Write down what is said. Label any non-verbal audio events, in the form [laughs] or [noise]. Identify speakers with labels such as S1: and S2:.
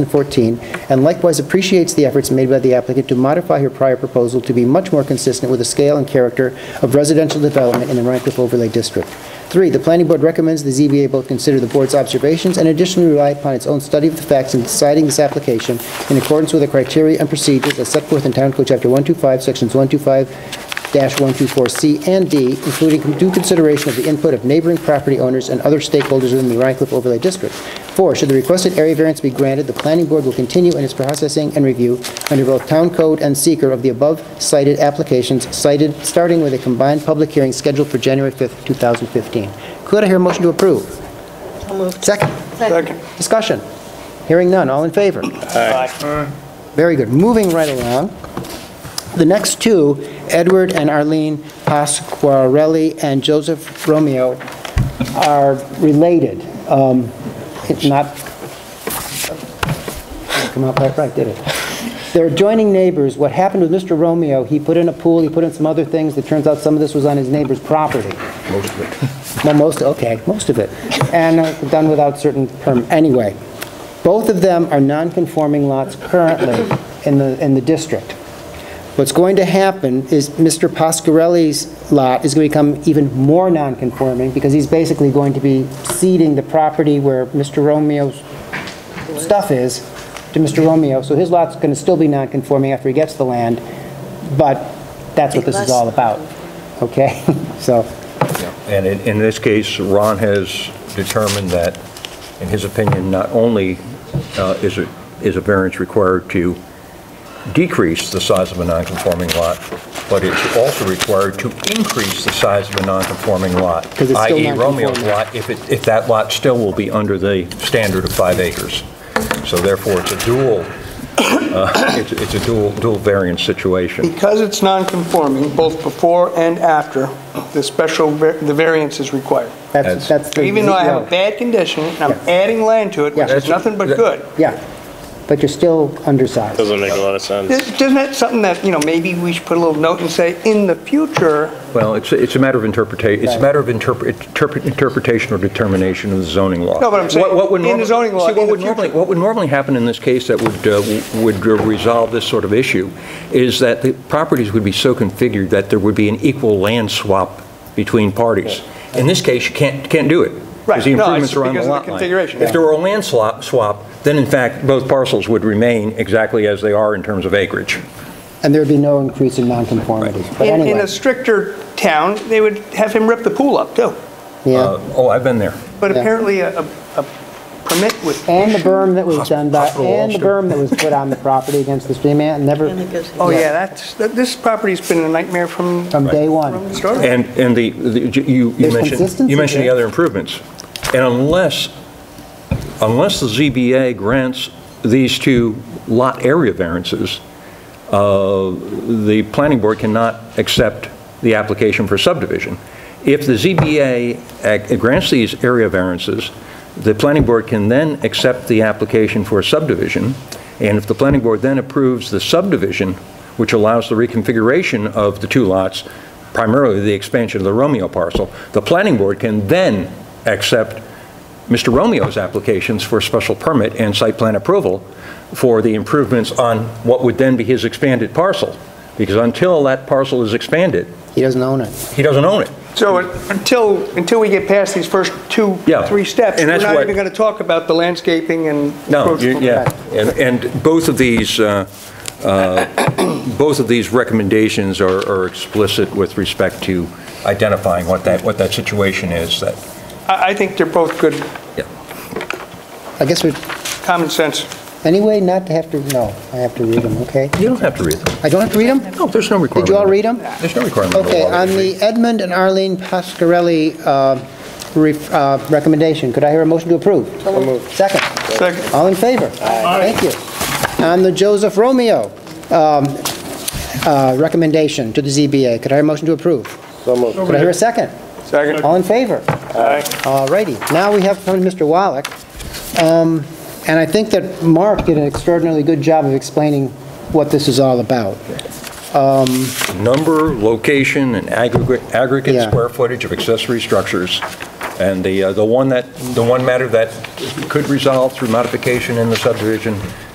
S1: 14, and likewise appreciates the efforts made by the applicant to modify her prior proposal to be much more consistent with the scale and character of residential development in the Rhine Cliff Overlay District. Three, the planning board recommends the ZBA both consider the board's observations and additionally rely upon its own study of the facts in deciding this application in accordance with the criteria and procedures as set forth in Town Code Chapter 125, Sections 125-124C and D, including due consideration of the input of neighboring property owners and other stakeholders within the Rhine Cliff Overlay District. Four, should the requested area variance be granted, the planning board will continue in its processing and review under both town code and seeker of the above cited applications cited, starting with a combined public hearing scheduled for January 5th, 2015. Could I hear a motion to approve? Second?
S2: Second.
S1: Discussion? Hearing none, all in favor? Very good. Moving right along, the next two, Edward and Arlene Pasquarelli and Joseph Romeo, are related. Um, It's not, didn't come out quite right, did it? They're adjoining neighbors. What happened with Mr. Romeo, he put in a pool, he put in some other things. It turns out some of this was on his neighbor's property. Well, most, okay, most of it. And uh, done without certain perm, anyway. Both of them are non-conforming lots currently in the, in the district. What's going to happen is Mr. Pasquarelli's lot is going to become even more non-conforming because he's basically going to be ceding the property where Mr. Romeo's stuff is to Mr. Romeo, so his lot's going to still be non-conforming after he gets the land, but that's what this is all about, okay? [laughs] So,
S3: And in, in this case, Ron has determined that, in his opinion, not only uh, is it, is a variance required to decrease the size of a nonconforming lot, but it's also required to increase the size of a nonconforming lot,
S1: 'Cause it's still
S3: i.e. Romeo's
S1: nonconforming.
S3: lot, if it, if that lot still will be under the standard of five acres. So therefore, it's a dual, uh, [coughs] it's it's a dual, dual variance situation.
S2: Because it's non-conforming, both before and after, the special, var- the variance is required.
S1: that's,
S3: That's-
S1: that's the...
S2: Even though I have
S1: yeah.
S2: a bad condition, and I'm
S1: Yeah.
S2: adding land to it, which is
S3: That's-
S2: nothing but
S3: that-
S2: good.
S1: Yeah, but you're still undersized.
S4: Doesn't make a lot of sense.
S2: Is- Isn't that something that, you know, maybe we should put a little note and say, in the future,
S3: Well, it's, it's a matter of interpretation, it's a
S1: Right.
S3: matter of interpre- interpre- interpretation or determination of the zoning law.
S2: No, but I'm saying,
S3: What- what would
S2: in the
S3: norma-
S2: zoning law,
S3: see, what
S2: in the
S3: would normally- What would normally happen in this case that would, uh, w- would uh, resolve this sort of issue is that the properties would be so configured that there would be an equal land swap between parties. In this case, you can't, can't do it. Because
S2: Right,
S3: the
S2: no, it's
S3: improvements are on the
S2: because of the
S3: lot line.
S2: configuration.
S3: If there were a land swap, swap, then in fact, both parcels would remain exactly as they are in terms of acreage.
S1: And there'd be no increase in nonconformity. But
S2: in in
S1: anyway,
S2: a stricter town, they would have him rip the pool up, too.
S1: yeah.
S3: Uh, Oh, I've been there.
S2: But
S1: Yeah.
S2: apparently, a a- a permit would
S1: And the berm that was done by,
S3: Hospital
S1: and the berm that was put on the property against the stream, man, never,
S2: Oh, yeah, that's, that- this property's been a nightmare from
S1: from day
S2: from the
S1: one.
S2: start.
S3: And, and the, the- you, you
S1: There's
S3: mentioned,
S1: consistency
S3: you mentioned the
S1: there.
S3: other improvements. And unless, unless the ZBA grants these two lot area variances, uh, the planning board cannot accept the application for subdivision. If the ZBA ac- grants these area variances, the planning board can then accept the application for subdivision, and if the planning board then approves the subdivision, which allows the reconfiguration of the two lots, primarily the expansion of the Romeo parcel, the planning board can then accept Mr. Romeo's applications for special permit and site plan approval for the improvements on what would then be his expanded parcel, because until that parcel is expanded,
S1: He doesn't own it.
S3: he doesn't own it.
S2: So it- until, until we get past these first two,
S3: Yeah.
S2: three steps, we're
S3: And that's
S2: not
S3: what-
S2: even going to talk about the landscaping and...
S3: No,
S2: approach
S3: you-
S2: from the
S3: yeah,
S2: back.
S3: and, and both of these, uh, uh, [coughs] both of these recommendations are are explicit with respect to identifying what that, what that situation is, that,
S2: I, I think they're both good
S3: yeah.
S1: I guess we,
S2: common sense.
S1: anyway, not to have to, no, I have to read them, okay?
S3: You don't have to read them.
S1: I don't have to read them?
S3: No, there's no requirement.
S1: Did you all read them?
S3: There's no requirement. in the
S1: Okay,
S3: law that
S1: on
S3: you read.
S1: the Edmund and Arlene Pasquarelli uh, ref- uh, recommendation, could I hear a motion to approve? Second?
S2: Second.
S1: All in favor? Thank you. On the Joseph Romeo um, uh, recommendation to the ZBA, could I hear a motion to approve? Could I hear a second?
S2: Second.
S1: All in favor?
S2: Aye.
S1: All righty. Now we have from Mr. Wallach, Um, and I think that Mark did an extraordinarily good job of explaining what this is all about.
S3: number, location, and aggregate, aggregate
S1: Yeah.
S3: square footage of accessory structures And the, uh, the one that, the one matter that could resolve through modification in the subdivision